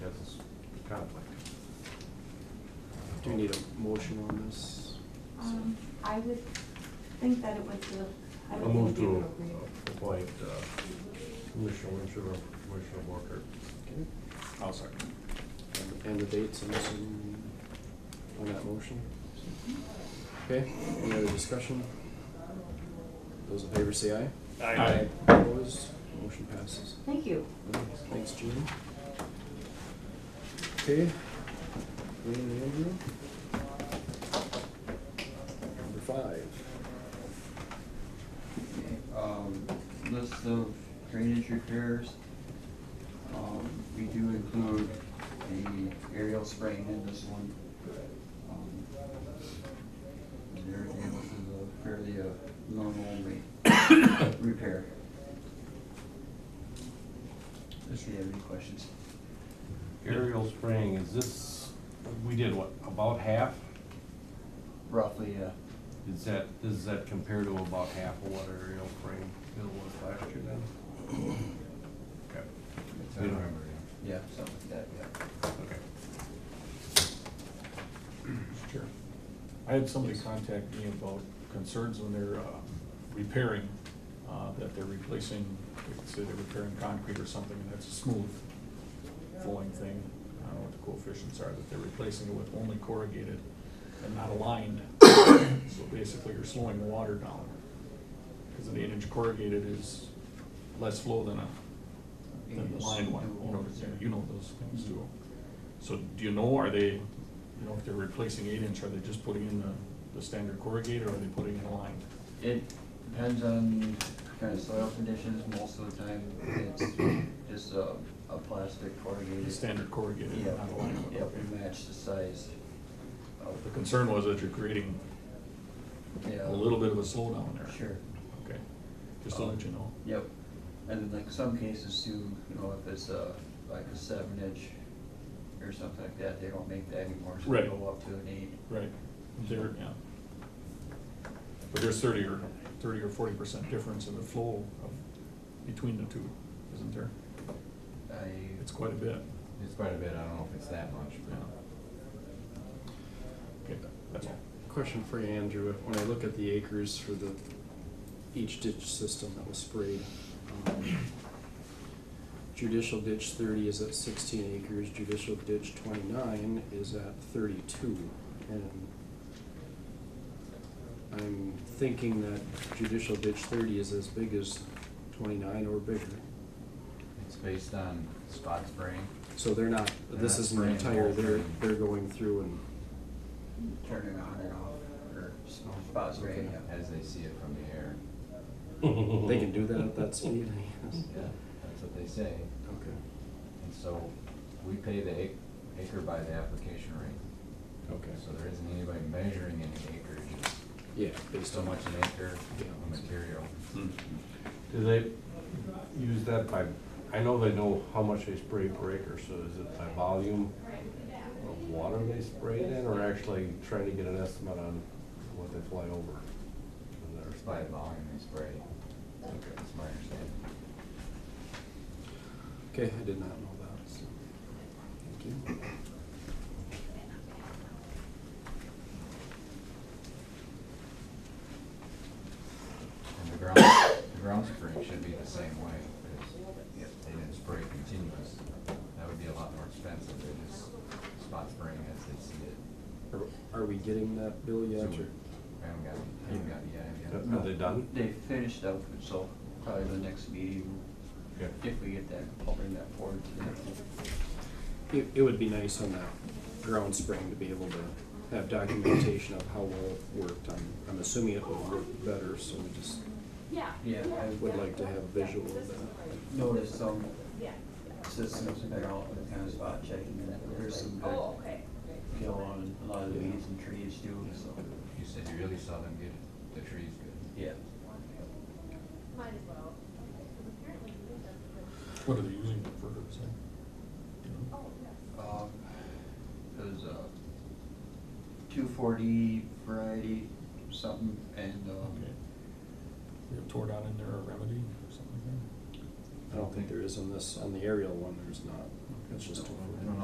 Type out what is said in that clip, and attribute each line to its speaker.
Speaker 1: conflict.
Speaker 2: Do we need a motion on this?
Speaker 3: Um, I would think that it would, do- I
Speaker 1: I'll
Speaker 3: would
Speaker 1: move
Speaker 3: think it
Speaker 1: to
Speaker 3: would be
Speaker 1: appoint
Speaker 3: appropriate.
Speaker 1: uh, Commissioner Winchell and Commissioner Walker.
Speaker 2: Okay, Oh,
Speaker 4: I'll second.
Speaker 2: and- And the dates and this and on that motion? Okay, any other discussion? Those in favor say aye.
Speaker 4: Aye.
Speaker 2: Opposed, motion passes.
Speaker 3: Thank you.
Speaker 2: Thanks, Gene. Okay, Wayne and Andrew. Number five.
Speaker 5: um, list of drainage repairs. Um, we do include a aerial spraying in this one. Um, and everything else is a fairly, uh, normal re- repair. If you have any questions.
Speaker 1: Aerial spraying, is this, we did what, about half?
Speaker 5: Roughly, uh,
Speaker 1: Is that, does that compare to about half of what aerial spraying bill was last year then? Okay.
Speaker 5: it's,
Speaker 1: We don't
Speaker 5: uh,
Speaker 1: remember, yeah.
Speaker 5: yeah, something like that, yeah.
Speaker 1: Okay.
Speaker 4: Sure. I had somebody contact me about concerns when they're uh, repairing, uh, that they're replacing, like, say they're repairing concrete or something, and that's a smooth flowing thing. I don't know what the coefficients are, that they're replacing it with only corrugated and not aligned. So basically, you're slowing the water down. Because an eight-inch corrugated is less flow than a, than a lined one, you know, you know those things too. So do you know, are they, you know, if they're replacing eight inch, are they just putting in the, the standard corrugated or are they putting in a line?
Speaker 5: It depends on kind of soil conditions, most of the time it's just a, a plastic corrugated.
Speaker 4: The standard corrugated,
Speaker 5: Yep,
Speaker 4: not a line?
Speaker 5: yep,
Speaker 4: Okay.
Speaker 5: we match the size of.
Speaker 4: The concern was that you're creating
Speaker 5: Yeah.
Speaker 4: a little bit of a slowdown there.
Speaker 5: Sure, Um,
Speaker 4: Okay, just to let you know.
Speaker 5: yep, and then like some cases too, you know, if it's a, like a seven inch or something like that, they don't make that anymore, so they
Speaker 4: Right.
Speaker 5: go up to an eight.
Speaker 4: Right, there, yeah. But there's thirty or, thirty or forty percent difference in the flow of, between the two, isn't there?
Speaker 5: I,
Speaker 4: It's quite a bit,
Speaker 6: It's quite a bit, I don't know if it's that much,
Speaker 4: yeah.
Speaker 6: but.
Speaker 4: Okay, that's all.
Speaker 2: Question for you, Andrew. When I look at the acres for the, each ditch system that was sprayed, um, judicial ditch thirty is at sixteen acres, judicial ditch twenty-nine is at thirty-two. And I'm thinking that judicial ditch thirty is as big as twenty-nine or bigger.
Speaker 6: It's based on spot spraying.
Speaker 2: So they're not,
Speaker 6: They're
Speaker 2: this
Speaker 6: not
Speaker 2: isn't
Speaker 6: spraying the whole
Speaker 2: entire, they're,
Speaker 6: thing.
Speaker 2: they're going through and,
Speaker 5: turning on and off, or spot spray,
Speaker 6: looking
Speaker 5: yeah.
Speaker 6: As they see it from the air.
Speaker 2: they can do that at that speed, I guess.
Speaker 6: Yeah, that's what they say.
Speaker 2: Okay.
Speaker 6: And so we pay the ac- acre by the application rate.
Speaker 2: Okay.
Speaker 6: So there isn't anybody measuring any acreage.
Speaker 2: Yeah,
Speaker 6: It's
Speaker 2: based
Speaker 6: so
Speaker 2: on
Speaker 6: much an acre
Speaker 2: Yeah.
Speaker 6: of material.
Speaker 1: Do they use that by, I know they know how much they spray per acre, so is it by volume of water they spray it in, or actually trying to get an estimate on what they fly over? in their
Speaker 6: It's by
Speaker 1: spray?
Speaker 6: volume they spray. That's my understanding.
Speaker 2: Okay, I did not know that, so, thank you.
Speaker 6: And the ground, the ground spraying should be the same way, because they didn't spray continuous. That would be a lot more expensive, they just spot spraying as they see it.
Speaker 2: Are, are we getting that bill yet,
Speaker 6: So
Speaker 2: or?
Speaker 6: I haven't got, I haven't got it yet, I haven't got
Speaker 1: Are they done?
Speaker 5: They finished up, so probably the next meeting,
Speaker 1: Okay.
Speaker 5: if we get that, I'll bring that forward to them.
Speaker 2: It, it would be nice on that ground spring to be able to have documentation of how well it worked, I'm, I'm assuming it will work better, so we just
Speaker 5: Yeah,
Speaker 2: would
Speaker 5: I
Speaker 2: like to have visual of that.
Speaker 5: noticed some systems that are out with kind of spot checking, and there's some good deal on a lot of the weeds and trees too, so,
Speaker 6: it. You said you really saw them get the trees good.
Speaker 5: yeah.
Speaker 4: What are they using it for, is that? you know?
Speaker 5: Um, there's a two forty variety, something, and, um,
Speaker 4: Okay. They have tore down in there a remedy or something like that?
Speaker 2: I don't think there is on this, on the aerial one, there's not, it's just.
Speaker 6: I don't know